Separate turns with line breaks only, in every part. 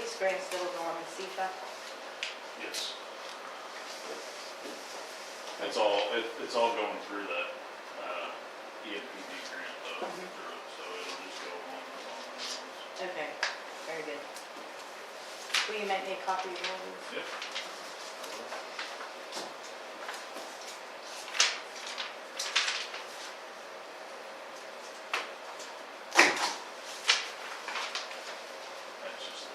experience still with Norm and Sifa?
Yes. It's all, it, it's all going through that, uh, EMPD grant though,
Mhm.
through, so it'll just go along with all the other ones.
Okay, very good. Will you make me a copy of all these?
Yep. That's just,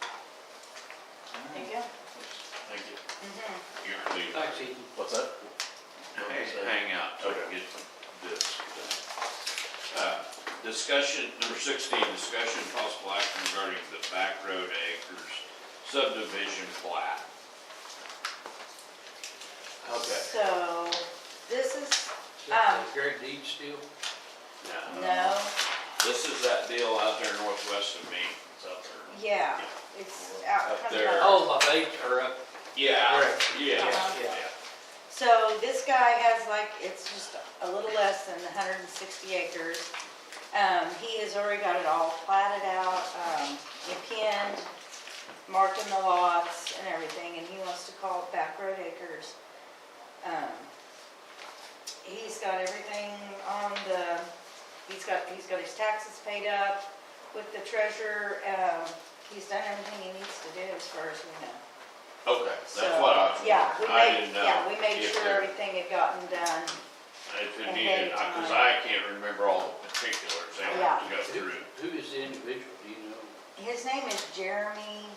There you go.
thank you.
Mm-hmm.
You're gonna leave.
Thanks, Ethan.
Um,
What's that?
Hang out till we get this. Uh, Discussion, number sixteen, discussion and possible action regarding the back road acres subdivision plat.
Okay.
So, this is,
Is that the Great deed still?
Now,
no,
This is that deal out there northwest of me.
It's out there.
yeah, it's out.
Up
comes
there.
out.
Oh, my baits are up.
Yeah,
Correct.
yeah.
Uh-huh.
Yeah.
So this guy has like, it's just a little less than hundred and sixty acres. Um, he has already got it all platted out, um, pinned, marked in the lots and everything, and he wants to call it Back Road Acres. Um, He's got everything on the, he's got, he's got his taxes paid up with the treasurer, um, he's done everything he needs to do as far as we know.
Okay, that's
So,
what I was
Yeah, we
wondering. I
made,
didn't know.
yeah, we made
if
sure
there-
everything had gotten done.
If it
ahead
needed,
of
because
time.
I can't remember all the particulars. I have to go
Who
through.
who is the individual, do you know?
His name is Jeremy.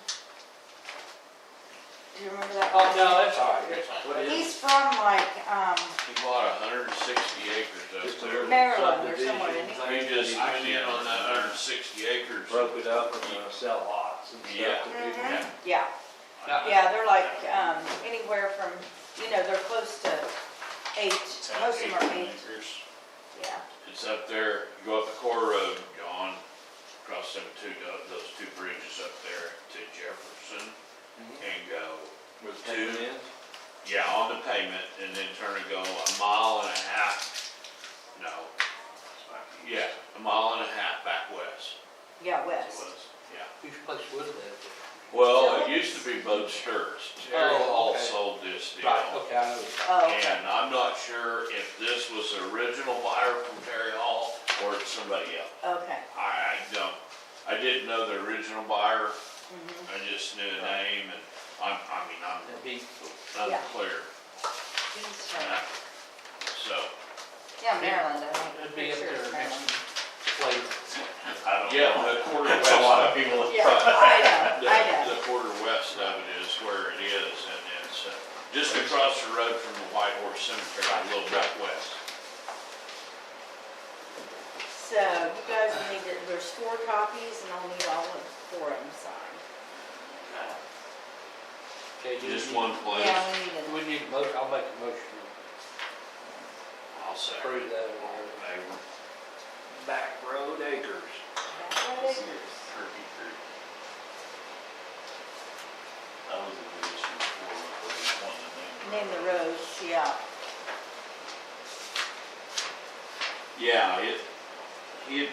Do you remember that?
Oh, that's all right, that's all right.
He's from like, um,
He bought hundred and sixty acres up there.
Maryland or somewhere, isn't he?
We just went in on that hundred and sixty acres.
uh, broke it up and uh, sell lots and stuff
Yeah.
to people.
mhm,
Mm-hmm.
yeah, yeah, they're like, um, anywhere from, you know, they're close to eight,
It's out
most of them are eight,
18 acres.
yeah.
It's up there, you go up the core road, John, across them two, those two bridges up there to Jefferson
Mm-hmm.
and go
With
two,
two in.
yeah, on the pavement and then turn and go a mile and a half. No, yeah, a mile and a half back west.
Yeah,
it
west.
was, Yeah.
Whose place was that?
Well, it used to be Bud Sturts. Terry
Oh,
Hall
okay.
sold this deal.
Right, okay, I know.
Oh, okay.
And I'm not sure if this was the original buyer from Terry Hall or it's somebody else.
okay,
I, I don't, I didn't know the original buyer,
mhm,
I just knew the name and I'm, I mean,
That'd
I'm
be-
Yeah.
unclear.
he's
and
from,
I- So,
yeah, Maryland, I think.
That'd
Pretty
be up
sure it's
there
Maryland.
next place.
I don't know.
yeah, the quarter west.
That's a lot of people.
Yeah, I know, I
The,
know,
the quarter west of it is where it is and it's uh, just across the road from the White Horse Cemetery, a little bit west.
so you guys need to, there's four copies and I'll need all of four of them signed.
Okay, do we
Just
need-
one place.
Yeah, we need them.
We need a motion, I'll make a motion
I'll say.
to approve that. or whatever.
Neighbor.
Back road acres.
Back road acres.
Turkey Creek. That was a good issue before, where we wanted to
Name the roads, yeah.
Yeah, it, he had